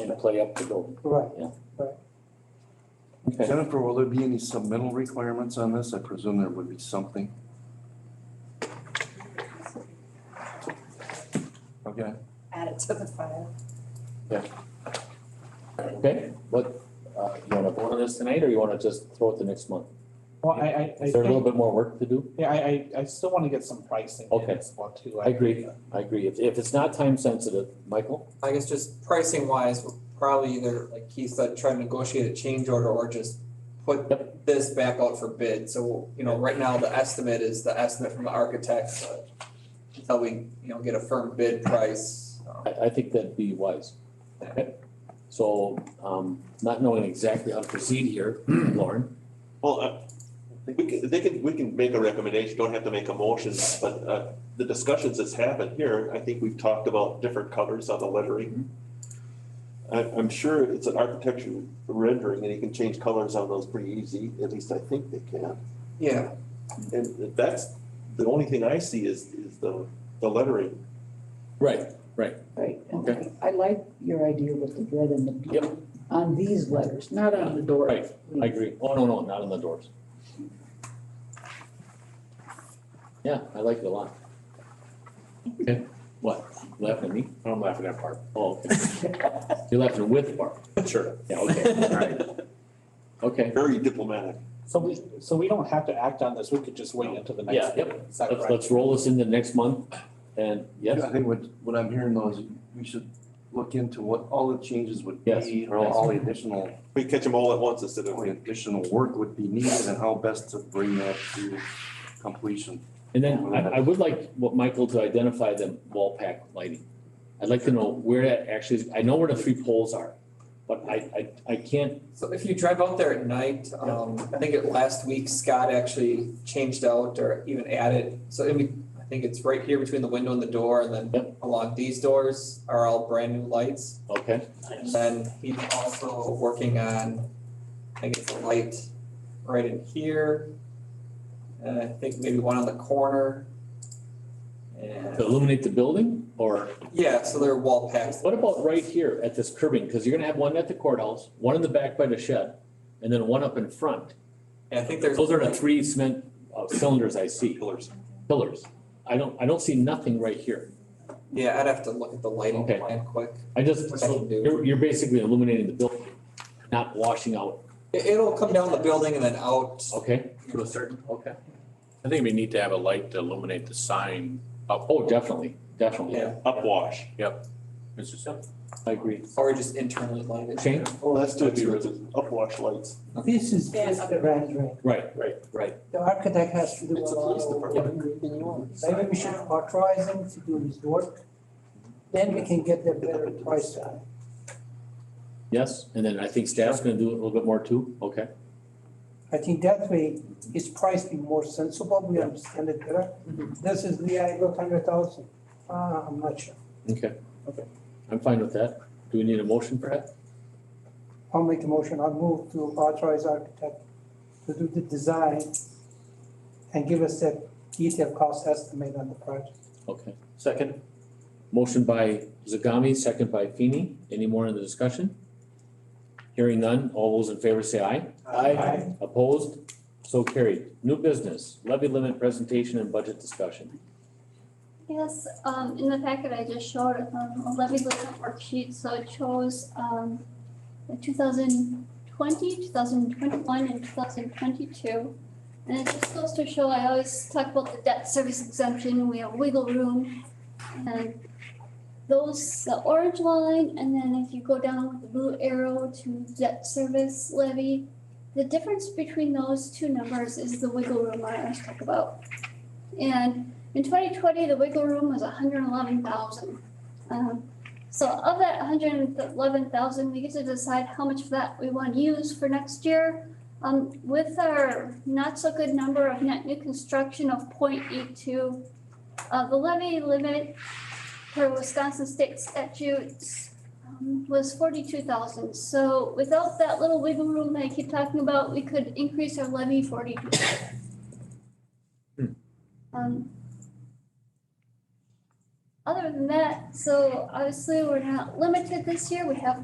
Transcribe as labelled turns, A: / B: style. A: and play up the goal.
B: Right,
A: Okay.
C: Jennifer, will there be any submittal requirements on this? I presume there would be something. Okay,
D: add it to the file.
A: Okay, what, uh, you wanna vote on this tonight, or you wanna just throw it the next month?
E: Well, I, I, I
A: Is there a little
E: think,
A: bit more work to do?
E: yeah, I, I, I still wanna get some pricing in
A: Okay.
E: as well too. uh,
A: I agree, I agree. If, if it's not time sensitive, Michael?
F: I guess just pricing wise, we're probably either, like Keith said, try to negotiate a change order or just put this back out for bid. So, you know, right now, the estimate is the estimate from the architects, but until we, you know, get a firm bid price. um,
A: I, I think that'd be wise. Okay. So, um, not knowing exactly how to proceed here, Lauren,
G: Well, uh, we can, they can, we can make a recommendation, don't have to make a motion, but uh, the discussions that's happened here, I think we've talked about different colors on the lettering. I, I'm sure it's an architectural rendering and you can change colors on those pretty easy, at least I think they can.
F: Yeah,
G: And that's, the only thing I see is, is the, the lettering.
A: right,
H: Right, and
A: Okay.
H: I like your idea with the red and the blue.
A: Yep.
H: On these letters, not on the door.
A: Right, I agree. Oh, no, no, not on the doors. Yeah, I like it a lot. Okay, what, You laughing at me? I'm laughing at Barb. Oh, okay. you're laughing with Barb. Sure. Yeah, okay, all right. Okay,
G: Very diplomatic.
E: So we, so we don't have to act on this, we could just wait until the
A: Yeah,
E: next
A: yep.
E: meeting, is that
A: let's,
E: correct?
A: let's roll this into next month, and yes,
C: I think what, what I'm hearing though is we should look into what all the changes would
A: Yes,
C: be, or all the additional,
G: We catch them all at once instead
C: all
G: of,
C: the additional work would be needed and how best to bring that to completion.
A: And then I, I would like what Michael to identify the wall pack lighting. I'd like to know where that actually, is. I know where the three poles are, but I, I, I can't,
F: so if you drive out there at night, um, I think it last week Scott actually changed out or even added. So I mean, I think it's right here between the window and the door and then
A: Yep.
F: along these doors are all brand new lights.
A: okay,
F: And then he's also working on, I think it's a light right in here. And I think maybe one on the corner.
A: to
F: And,
A: illuminate the building or
F: yeah, so they're wall packs.
A: what about right here at this curbing? Cause you're gonna have one at the courthouse, one in the back by the shed, and then one up in front.
F: And I think there's.
A: Those are the three cement uh, cylinders I see,
G: pillars.
A: pillars. I don't, I don't see nothing right here.
F: Yeah, I'd have to look at the lighting
A: Okay.
F: plan quick.
A: I just,
F: Which I can do.
A: you're, you're basically illuminating the building, not washing out
F: It, it'll come down the building and then out.
A: Okay. To a certain, okay.
I: I think we need to have a light to illuminate the sign up,
A: Oh, definitely, definitely.
F: Yeah,
G: Upwash.
I: Mr. Sim.
A: I agree.
F: or just internally light it.
A: Shane?
G: Oh, that's too
I: That'd be
G: expensive. Upwash lights.
B: this is just the rendering.
A: Right, right, right.
B: The architect has to do a
G: It's a
B: lot
G: police
B: of
G: department.
B: work. Maybe we should authorize him to do his work, then we can get the better price on it.
A: Yes, and then I think staff's gonna do it a little bit more too, okay?
B: I think that way his price be more sensible, we understand it better. This is, yeah, I got hundred thousand, uh, I'm not sure,
A: Okay. Okay. I'm fine with that. Do we need a motion for that?
B: I'll make a motion, I'll move to authorize architect to do the design and give us that detailed cost estimate on the project.
A: Okay. Second. Motion by Zagami, second by Feeny. Any more in the discussion? Hearing none, all those in favor say aye.
B: Aye.
A: Opposed? So carried. New business, levy limit presentation and budget discussion.
J: Yes, um, in the packet I just showed, um, a levy limit worksheet, so it shows, um, the 2020, 2021, and two thousand twenty-two. And it just goes to show, I always talk about the debt service exemption, we have wiggle room. And those, the orange line, and then if you go down with the blue arrow to debt service levy, the difference between those two numbers is the wiggle room I always talk about. And in twenty twenty, the wiggle room was hundred and eleven thousand. Um, so of that hundred and eleven thousand, we get to decide how much of that we want to use for next year. Um, with our not so good number of net new construction of 0.82, uh, the levy limit per Wisconsin state statutes um, was forty-two thousand. So without that little wiggle room that I keep talking about, we could increase our levy forty-two.
A: Hmm.
J: Um, other than that, so obviously we're not limited this year. We have